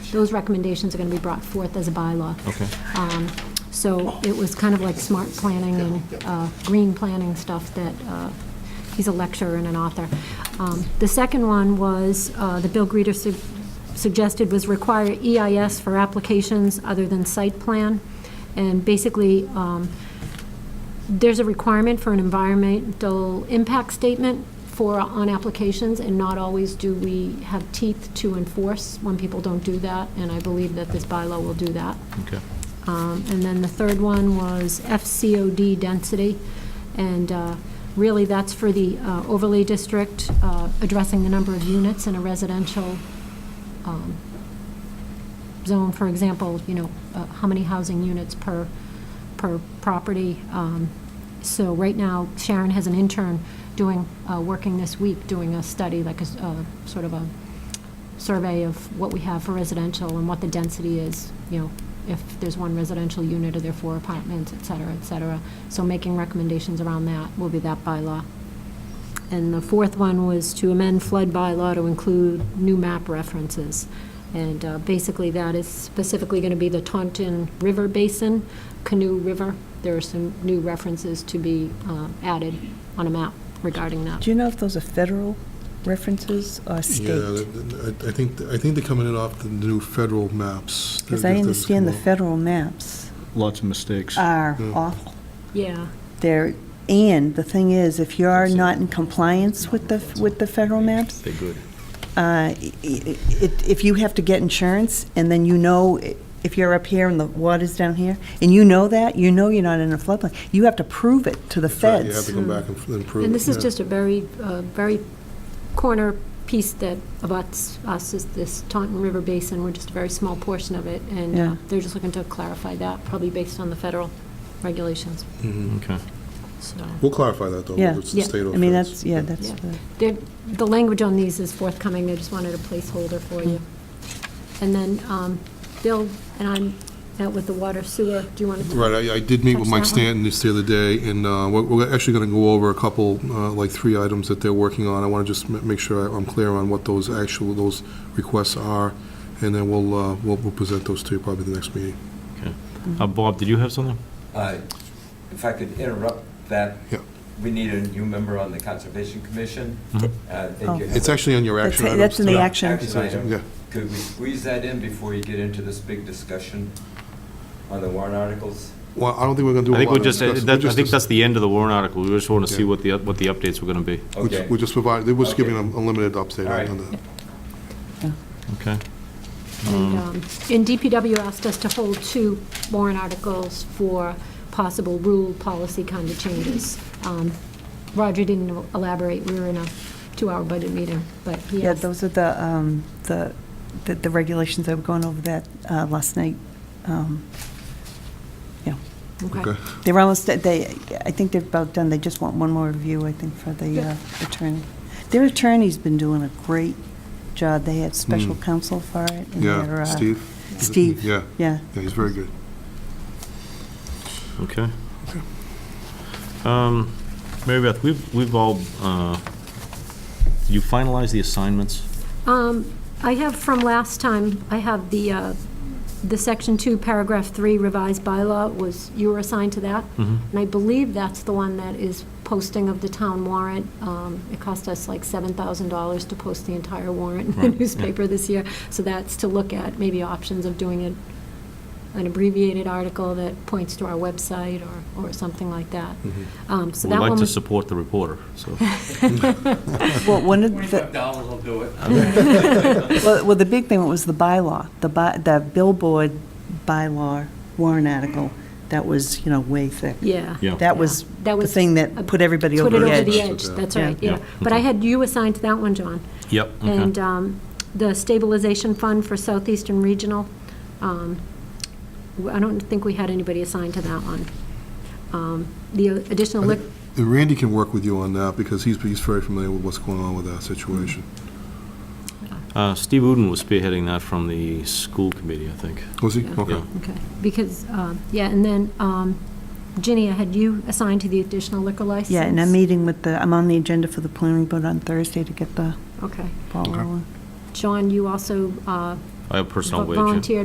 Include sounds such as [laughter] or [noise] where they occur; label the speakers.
Speaker 1: those recommendations are going to be brought forth as a bylaw.
Speaker 2: Okay.
Speaker 1: Um, So it was kind of like smart planning and uh, green planning stuff that, uh, he's a lecturer and an author. Um, The second one was, uh, that Bill Greeter su- suggested was require EIS for applications other than site plan. And basically, um, there's a requirement for an environmental impact statement for, on applications, and not always do we have teeth to enforce when people don't do that, and I believe that this bylaw will do that.
Speaker 2: Okay.
Speaker 1: Um, And then the third one was FCOD density, and uh, really, that's for the uh, overlay district, uh, addressing the number of units in a residential um, zone, for example, you know, uh, how many housing units per, per property. Um, So right now, Sharon has an intern doing, uh, working this week, doing a study, like a, s- uh, sort of a survey of what we have for residential and what the density is, you know, if there's one residential unit, are there four apartments, et cetera, et cetera. So making recommendations around that will be that bylaw. And the fourth one was to amend flood bylaw to include new map references. And uh, basically, that is specifically going to be the Taunton River Basin, Canoe River. There are some new references to be uh, added on a map regarding that.
Speaker 3: Do you know if those are federal references or
Speaker 4: Yeah,
Speaker 3: state?
Speaker 4: I- I think, I think they're coming in off the new federal maps.
Speaker 3: Because I understand the federal maps
Speaker 2: Lots of mistakes.
Speaker 1: Uh,
Speaker 3: are
Speaker 4: Yeah.
Speaker 3: awful.
Speaker 1: Yeah,
Speaker 3: They're, and the thing is, if you're not in compliance with the, with the federal maps,
Speaker 2: They're good.
Speaker 3: uh, i- i- it- if you have to get insurance, and then you know, i- if you're up here and the water's down here, and you know that, you know you're not in a floodplain, you have to prove it to the
Speaker 4: Right, You have
Speaker 3: feds. Hmm.
Speaker 4: to come back and f- and prove it.
Speaker 1: and this is
Speaker 4: yeah.
Speaker 1: just a very, uh, very corner piece that abuts us, is this Taunton River Basin. We're just a very small portion of it, and uh,
Speaker 3: Yeah.
Speaker 1: they're just looking to clarify that, probably based on the federal regulations,
Speaker 4: Mhm.
Speaker 2: Okay.
Speaker 1: so.
Speaker 4: We'll clarify that, though,
Speaker 3: Yeah.
Speaker 4: whether it's the
Speaker 1: Yeah.
Speaker 4: state or
Speaker 3: I mean,
Speaker 4: feds.
Speaker 3: that's, yeah, that's,
Speaker 1: Yeah.
Speaker 3: the-
Speaker 1: There- The language on these is forthcoming, I just wanted a placeholder for you.
Speaker 4: Hmm.
Speaker 1: And then um, Bill and I'm out with the water sewer, do you want to?
Speaker 4: Right, I, I did meet with
Speaker 1: Touch
Speaker 4: Mike
Speaker 1: that one.
Speaker 4: Stanton this the other day, and uh, we're- we're actually going to go over a couple, uh, like three items that they're working on. I want to just ma- make sure I- I'm clear on what those actual, those requests are, and then we'll, uh, we'll we'll present those to you probably the next meeting.
Speaker 2: Okay. Uh, Bob, did you have something?
Speaker 5: Uh, If I could interrupt that,
Speaker 4: Yeah.
Speaker 5: we need a new member on the Conservation Commission.
Speaker 2: Mhm.
Speaker 5: Uh, they
Speaker 3: Oh.
Speaker 5: could-
Speaker 4: Mm-hmm. It's actually on your
Speaker 3: That's-
Speaker 4: action items.
Speaker 3: that's in the
Speaker 4: too.
Speaker 3: action.
Speaker 5: Action item.
Speaker 4: Yeah.
Speaker 5: Could we squeeze that in before you get into this big discussion on the warrant articles?
Speaker 4: Well, I don't think we're going to do
Speaker 2: I
Speaker 4: a
Speaker 2: think
Speaker 4: lot
Speaker 2: we're
Speaker 4: of
Speaker 2: just, uh,
Speaker 4: discuss- we're
Speaker 2: that- I
Speaker 4: just
Speaker 2: think that's
Speaker 4: dis-
Speaker 2: the end of the warrant article. We just want to see
Speaker 4: Yeah.
Speaker 2: what the, what the updates were going to be.
Speaker 5: Okay.
Speaker 4: which- We're just providing, they were just
Speaker 5: Okay.
Speaker 4: giving them a limited update
Speaker 5: All right.
Speaker 4: on that.
Speaker 2: Okay.
Speaker 1: And um, and DPW asked us to hold two warrant articles for possible rule policy kind of changes. Um, Roger didn't elaborate, we were in a two-hour budget meeting, but he
Speaker 3: yeah,
Speaker 1: asked.
Speaker 3: those are the, um, the, the- the regulations that were going over that uh, last night. Um, Yeah.
Speaker 4: Okay.
Speaker 3: They're almost, they, I think they're about done, they just want one more review, I think, for the uh, attorney. Their attorney's been doing a great job, they had special
Speaker 4: Hmm.
Speaker 3: counsel for it. and they're,
Speaker 4: Yeah,
Speaker 3: uh,
Speaker 4: Steve? Is it-
Speaker 3: Steve.
Speaker 4: Yeah,
Speaker 3: Yeah,
Speaker 4: yeah, he's very good.
Speaker 2: Okay. Um, Mary Beth, we've, we've all, uh, you finalized the assignments?
Speaker 1: Um, I have from last time, I have the, uh, the section two, paragraph three revised bylaw was, you were assigned to that.
Speaker 2: Mhm.
Speaker 1: And I believe that's the one that is posting of the town warrant. Um, It cost us like $7,000 to post the entire warrant in the
Speaker 2: Right, yeah.
Speaker 1: newspaper this year. So that's to look at, maybe options of doing it, an abbreviated article that points to our website or, or something like that.
Speaker 5: Mm-hmm.
Speaker 1: Um, So
Speaker 2: Mm-hmm. We'd
Speaker 1: that one
Speaker 2: like to
Speaker 1: was-
Speaker 2: support the reporter,
Speaker 1: [laughs]
Speaker 2: so.
Speaker 3: well, one of
Speaker 5: Twenty-five
Speaker 3: the,
Speaker 5: dollars will
Speaker 4: [laughs]
Speaker 5: do it.
Speaker 3: well, well, the big thing was the bylaw, the by, the billboard bylaw warrant article, that was, you know, way thick.
Speaker 1: Yeah.
Speaker 2: Yeah.
Speaker 3: That was
Speaker 1: Yeah. That
Speaker 3: the
Speaker 1: was
Speaker 3: thing that
Speaker 1: a-
Speaker 3: put everybody over
Speaker 1: Put
Speaker 3: the
Speaker 1: it over the
Speaker 3: edge.
Speaker 1: edge,
Speaker 4: Yeah.
Speaker 1: that's right,
Speaker 2: Yeah.
Speaker 1: yeah. But I had you assigned to that one, John.
Speaker 2: Yep,
Speaker 1: And
Speaker 2: okay.
Speaker 1: um, the stabilization fund for Southeastern Regional, um, w- I don't think we had anybody assigned to that one. Um, The additional, lic-
Speaker 4: And Randy can work with you on that, because he's, he's very familiar with what's going on with that situation.
Speaker 2: Uh, Steve Uden was spearheading that from the school committee, I think.
Speaker 4: Was he?
Speaker 1: Yeah.
Speaker 4: Okay.
Speaker 1: okay, because, um, yeah, and then um, Ginny, I had you assigned to the additional liquor license?
Speaker 3: Yeah, and I'm meeting with the, I'm on the agenda for the planning board on Thursday to get the
Speaker 1: Okay.
Speaker 3: ball
Speaker 4: Okay.
Speaker 3: rolling.
Speaker 1: John, you also uh,
Speaker 6: I have personal wage. yeah.
Speaker 2: volunteer